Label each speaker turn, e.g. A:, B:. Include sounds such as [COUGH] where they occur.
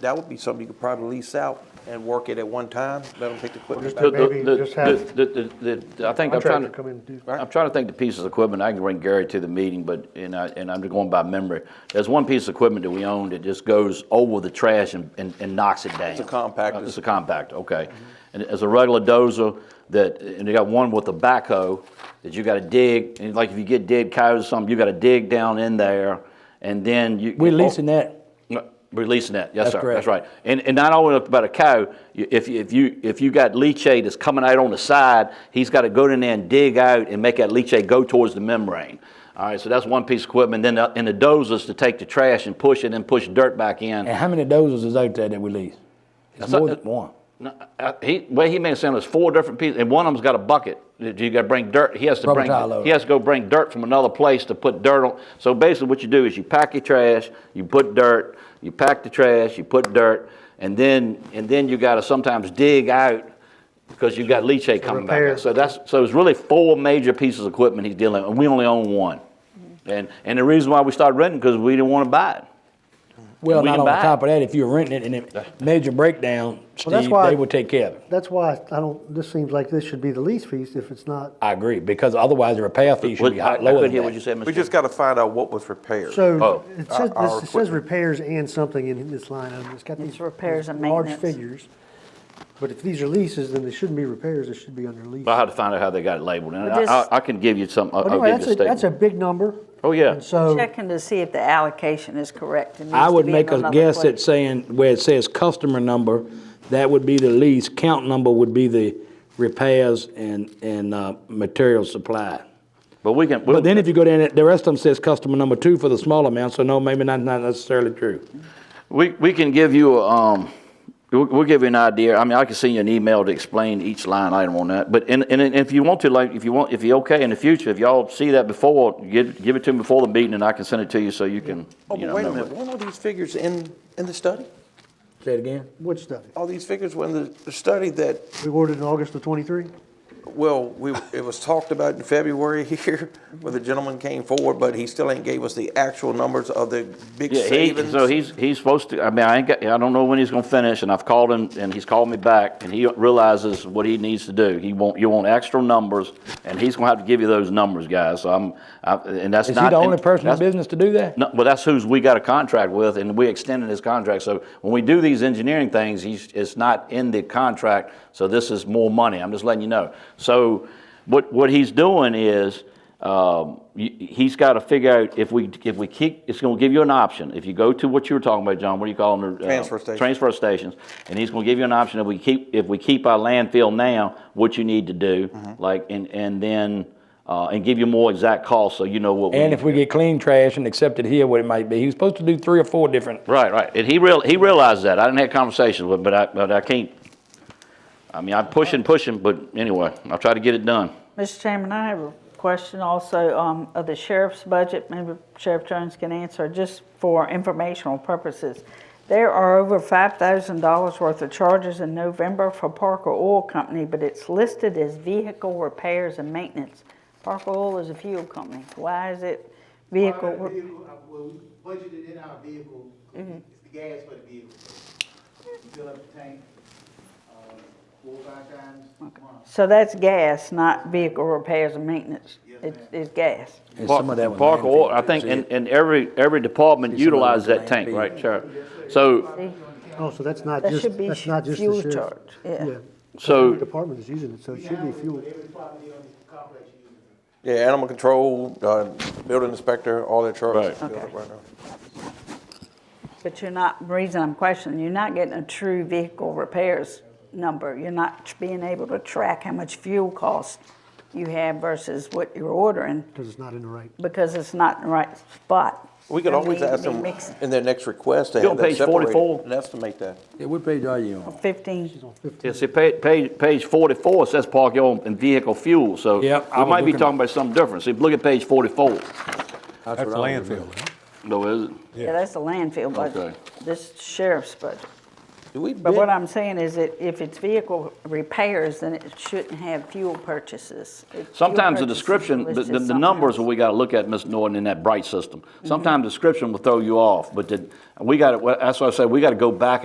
A: that would be something you could probably lease out and work it at one time, let them pick the equipment
B: Well,
A: back.
B: just-
A: up.
B: Maybe
C: The-
B: just
C: the-
B: have
C: the- the- the- I think I'm trying
B: Contractor
C: to.
B: come in and do.
C: I'm trying to think the pieces of equipment. I can bring Gary to the meeting, but, and I, and I'm just going by memory. There's one piece of equipment that we own that just goes over the trash and, and, and knocks it down.
A: a compactor.
C: Uh, It's a compactor, okay. And it's a regular dozer that, and they got one with a backhoe that you gotta dig, and like if you get dead cows or something, you gotta dig down in there, and then you.
D: We're leasing that.
C: No, Releasing that, yes,
D: That's
C: sir.
D: correct.
C: That's right. And, and not only about a cow, you- if, you- if you, if you got leachate that's coming out on the side, he's got to go in there and dig out and make that leachate go towards the membrane. All right, so that's one piece of equipment. Then, the- and the dozers to take the trash and push it and push dirt back in.
D: And how many dozers is out there that we lease? It's
C: thought
D: more
C: that-
D: than one.
C: No, uh, He, way he made it sound, there's four different pieces, and one of them's got a bucket. that You gotta bring dirt, he has to
D: Rubber
C: bring,
D: tile loader.
C: he has to go bring dirt from another place to put dirt on. So basically what you do is you pack your trash, you put dirt, you pack the trash, you put dirt, and then, and then you gotta sometimes dig out because you've got leachate coming back.
B: repair.
C: out. So that's, so it's really four major pieces of equipment he's dealing, with, and we only own one.
D: Mm-hmm.
C: And, and the reason why we started renting, because we didn't wanna buy it.
D: Well,
C: we
D: not
C: can
D: on
C: buy it.
D: top of that, if you're renting it and it major breakdown,
B: Well, that's
D: Steve,
B: why-
D: they will take care of it.
B: That's why I don't, this seems like this should be the lease fees if it's not.
D: I agree, because otherwise the repair fee should be
C: I I
D: hot- lower
C: couldn't
D: than
C: hear what you
D: that.
C: said,
A: We
C: Mr.
A: just gotta find out what was repaired.
B: So
C: Oh.
B: it says,
A: Our- our
B: this- it says
A: equipment.
B: repairs and something in this line item. It's got these.
E: It's repairs and
B: these large
E: maintenance.
B: figures. But if these are leases, then they shouldn't be repairs. They should be under lease.
C: But I had to find out how they got it labeled, and
E: But this-
C: I, I- I can give you some, I'll I'll
B: But anyway,
C: give
B: that's
C: you a
B: a, that's a
C: statement.
B: big number.
C: Oh, yeah.
B: And so,
E: Checking to see if the allocation is correct. It needs
D: I
E: to
D: would
E: be
D: make
E: in
D: a
E: another
D: guess at
E: place.
D: saying, where it says customer number, that would be the lease, count number would be the repairs and, and, uh, material supply.
C: But we can, we'll-
D: But then if you go down, it- the rest of them says customer number two for the small amount, so no, maybe not, not necessarily true.
C: we, we can give you, um, we'll, we'll give you an idea, I mean, I can send you an email to explain each line item on that, but, and, and if you want to, like, if you want, if you're okay in the future, if y'all see that before, give, give it to me before the meeting, and I can send it to you so you can,
A: Oh,
C: you
A: but
C: know.
A: wait a
C: know
A: minute,
C: what-
A: weren't all these figures in, in the study?
D: Say it again?
B: which study?
A: All these figures were in the, the study that,
B: We ordered in August of twenty-three?
A: well, we, it was talked about in February [LAUGHS] here, where the gentleman came forward, but he still ain't gave us the actual numbers of the big
C: Yeah, he,
A: savings.
C: so he's, he's supposed to, I mean, I ain't got, I don't know when he's gonna finish, and I've called him, and he's called me back, and he realizes what he needs to do. He want, you want extra numbers, and he's gonna have to give you those numbers, guys, so I'm, I, and that's
D: Is
C: not.
D: he the only
C: and
D: person in
C: that's-
D: business to do that?
C: No, well, that's who's we got a contract with, and we extended his contract. So when we do these engineering things, he's, it's not in the contract, so this is more money. I'm just letting you know. So what, what he's doing is, um, y- he's got to figure out if we, if we keep, it's going to give you an option. If you go to what you were talking about, John, what do you call them? Uh,
A: Transfer station.
C: Transfer stations, and he's going to give you an option if we keep, if we keep our landfill now, what you need to do, like, and, and then, uh, and give you more exact costs so you know what we
D: And if we get clean trash and accept it here, what it might be, he was supposed to do three or four different
C: Right, right. And he real, he realized that. I didn't have conversations with, him, but I, but I can't. I mean, I'm pushing, pushing, but anyway, I'll try to get it done.
E: Mr. Chairman, I have a question also um, of the sheriff's budget, maybe Sheriff Jones can answer, just for informational purposes. There are over $5,000 worth of charges in November for Parker Oil Company, but it's listed as vehicle repairs and maintenance. Parker Oil is a fuel company. Why is it vehicle?
F: Well, our
E: re-
F: vehicle, uh, well, we budgeted in our vehicle, it's the gas for the vehicle. We Fill up the tank, uh, four, or five times a month.
E: So that's gas, not vehicle repairs and maintenance.
F: Yes,
E: It's it's gas.
D: And
C: Park-
D: some of that was
C: Park
D: landfill,
C: oil, I think,
D: too.
C: and, and every, every department
D: See, some of it was
C: utilized that tank,
D: landfill.
C: right, Sheriff? So,
B: Oh, so that's not
E: That
B: just,
E: should be
B: that's not just the
E: fuel
B: sheriff.
E: charge, yeah.
B: The
C: so,
B: department is using it, so it should be fuel.
F: Every property on the complex uses it.
A: Yeah, animal control, uh, building inspector, all their charges.
C: Right.
A: built up right now.
E: But you're not, the reason I'm questioning, you're not getting a true vehicle repairs number. You're not tr- being able to track how much fuel cost you have versus what you're ordering
B: Because it's not in the right.
E: because it's not in the right spot.
A: We could
E: And
A: always
E: need to
A: ask
E: be
A: them
E: mixing
A: in their next request to have
C: You're on
A: that
C: page
A: separated
C: 44.
A: and estimate that.
D: Yeah, what page are you on?
E: Fifteen,
C: yeah, see, page, page, page forty-four says park oil and vehicle fuel, so we
D: Yep, I was
C: might be
D: looking at-
C: talking about something different. See, look at page forty-four.
G: That's landfill.
C: No, is it?
E: yeah, that's the landfill budget.
C: Okay.
E: This sheriff's budget.
A: Do we
E: But
A: bid,
E: what I'm saying is that if it's vehicle repairs, then it shouldn't have fuel purchases. If fuel
C: Sometimes the
E: purchases
C: description, the,
E: listed
C: the, the
E: something
C: numbers
E: else. Mm-hmm.
C: that we got to look at, Ms. Norton, in that bright system. Sometimes description will throw you off, but the, we got to, that's why I say we got to go back and